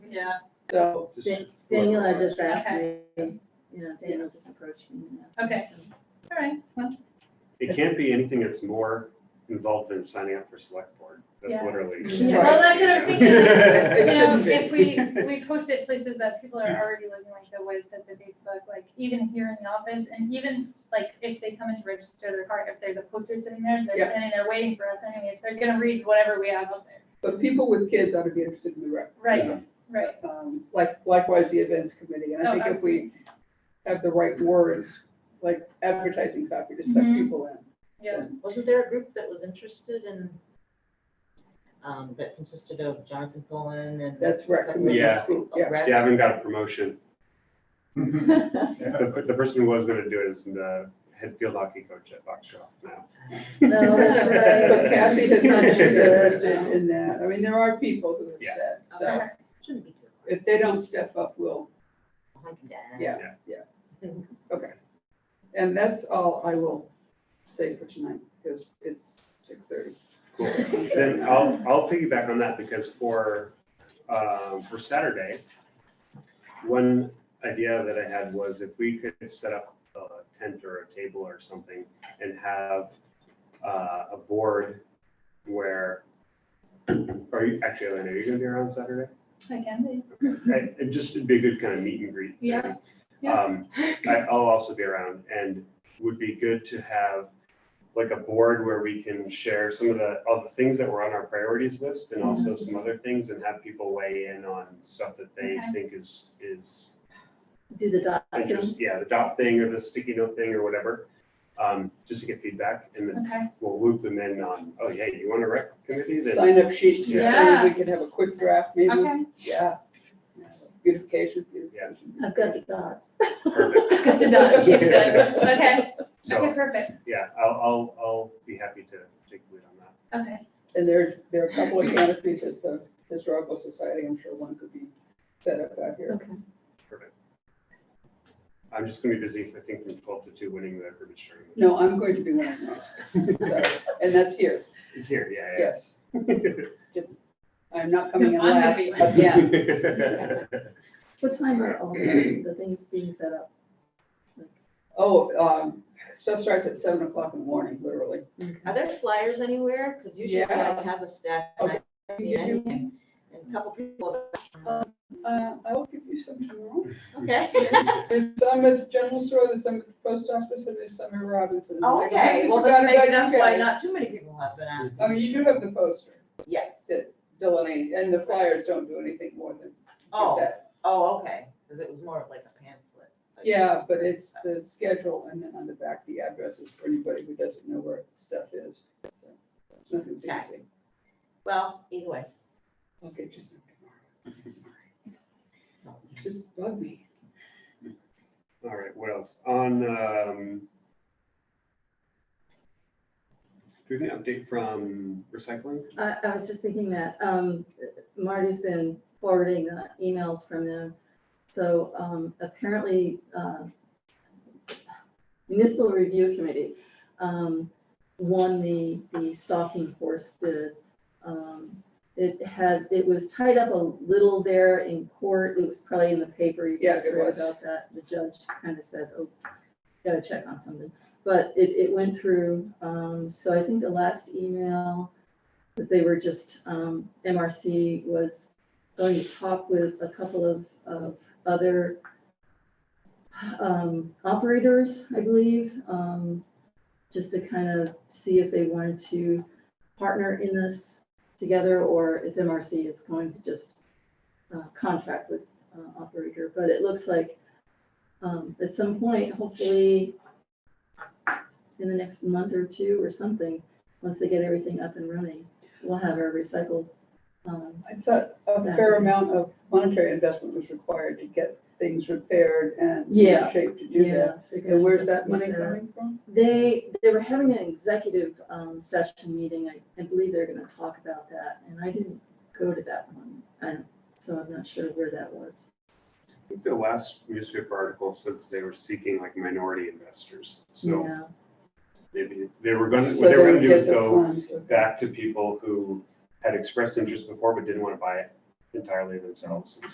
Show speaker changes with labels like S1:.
S1: Yeah,
S2: So,
S3: Just-
S4: Daniela just asked me, you know, Daniel just approached me. and asked me,
S1: Okay.
S4: so.
S1: all right, well,
S5: It can't be anything that's more involved than signing up for select board. That's
S1: Yeah.
S5: literally.
S2: Yeah.
S1: well, that's what I'm thinking,
S2: It
S1: you know,
S2: shouldn't be.
S1: if we, we post it places that people are already living, like the woods at the Facebook, like even here in the office, and even like if they come in to register their car, if there's a poster sitting there, they're
S2: Yeah.
S1: standing there waiting for us anyways, they're gonna read whatever we have up there.
S2: but people with kids ought to be interested in the rec.
S1: Right, right,
S2: Um, Like likewise, the events committee, and I
S1: Oh,
S2: think if we have the right words, like advertising copy to suck
S1: Mhm.
S2: people in.
S1: yeah,
S6: Wasn't there a group that was interested in, um, that consisted of Jonathan Pullen and?
S2: That's rec committee,
S5: Yeah.
S2: group, yeah.
S6: Rec?
S5: Gavin got a promotion.
S4: Mm-hmm.
S3: Yeah.
S5: The, the person who was gonna do it is the head field hockey coach at Buckshot now.
S4: No, that's right.
S2: But Kathy has not
S4: She's
S2: interested
S4: not.
S2: in that. I mean, there are people who
S5: Yeah.
S2: have said, so
S1: Okay.
S6: Shouldn't be too hard.
S2: if they don't step up, we'll,
S6: I can get it.
S2: Yeah. okay. And that's all I will say for tonight, because it's six thirty.
S5: Cool. Then I'll, I'll piggyback on that because for, um, for Saturday, one idea that I had was if we could set up a tent or a table or something and have uh, a board where, are you, actually, Elena, are you gonna be around Saturday?
S1: I can be,
S5: Right, It just would be a good kind of meet and greet. thing.
S1: Yeah, yeah.
S5: Um, I, I'll also be around and would be good to have like a board where we can share some of the, all the things that were on our priorities list and also
S1: Mm-hmm.
S5: some other things and have people weigh in on stuff that they
S1: Okay.
S5: think is, is
S4: Do the dot
S5: interest,
S4: thing.
S5: yeah, the dot thing or the sticky note thing or whatever. Um, just to get feedback and then
S1: okay,
S5: we'll loop them in on, oh, yeah, you want a rec committee? Then
S2: Sign up sheet, you say
S1: Yeah.
S2: we could have a quick draft maybe,
S1: okay.
S2: yeah. Beautification, beautification.
S4: I've got the dots.
S5: Perfect.
S1: Cut the dot, she's done. okay, okay,
S5: So,
S1: perfect,
S5: yeah, I'll, I'll, I'll be happy to take the lead on that.
S1: okay,
S2: And there, there are a couple of canopies at the Historical Society, I'm sure one could be set up out here.
S4: Okay.
S5: I'm just gonna be busy, I think, from twelve to two, winning the Urban Tournament.
S2: No, I'm going to be one of those, sorry, and that's here,
S5: It's here, yeah,
S2: yes,
S5: yeah.
S2: I'm not coming in
S1: I'm gonna
S2: last
S1: be-
S2: again.
S4: What time are all the, the things being set up?
S2: Oh, um, stuff starts at seven o'clock in the morning, literally.
S6: Are there flyers anywhere? Because usually
S2: Yeah.
S6: I have a stack and I haven't seen
S2: You do.
S6: anything. And a couple people,
S2: Uh, I will give you some tomorrow.
S6: okay.
S2: There's some at the general store, there's some at the post office, and there's some at Robinson's.
S6: Oh, Okay, well,
S2: Forgot
S6: then
S2: about
S6: maybe that's
S2: you
S6: why
S2: guys.
S6: not too many people have been asked.
S2: I mean, you do have the poster,
S6: Yes.
S2: that Delaney, and the flyers don't do anything more than
S6: Oh,
S2: that.
S6: oh, okay, because it was more of like a pamphlet. like-
S2: Yeah, but it's the schedule, and then on the back, the addresses for anybody who doesn't know where stuff is. So It's nothing fancy.
S6: Well, either way.
S2: Okay, just. Sorry.
S6: it's all-
S2: Just bug me.
S5: All right, what else? On, um, do we have an update from recycling?
S4: I, I was just thinking that, um, Marty's been forwarding uh, emails from them. So, um, apparently, uh, Municipal Review Committee, um, won the, the stalking horse bid. Um, It had, it was tied up a little there in court. It was probably in the paper. You
S2: Yeah,
S4: guys
S2: it
S4: read
S2: was.
S4: about that. The judge kind of said, oh, gotta check on something. But it, it went through. Um, so I think the last email because they were just, um, MRC was going to talk with a couple of, uh, of other um, operators, I believe, um, just to kind of see if they wanted to partner in this together or if MRC is going to just uh, contract with uh, operator. But it looks like um, at some point, hopefully in the next month or two or something, once they get everything up and running, we'll have our recycled. um,
S2: I thought a fair amount of monetary investment was required to get things repaired and
S4: Yeah.
S2: in shape to do that.
S4: figure
S2: And where's
S4: out
S2: that
S4: what's
S2: money
S4: with that.
S2: coming from?
S4: They, they were having an executive um, session meeting, I, I believe they're gonna talk about that, and I didn't go to that one, and so I'm not sure where that was.
S5: I think the last newspaper article said that they were seeking like minority investors. So
S4: Yeah,
S5: maybe they were gonna,
S2: So
S5: what they were
S2: they
S5: gonna
S2: would
S5: do is
S2: get the
S5: go
S2: funds. okay.
S5: back to people who had expressed interest before but didn't want to buy it entirely themselves.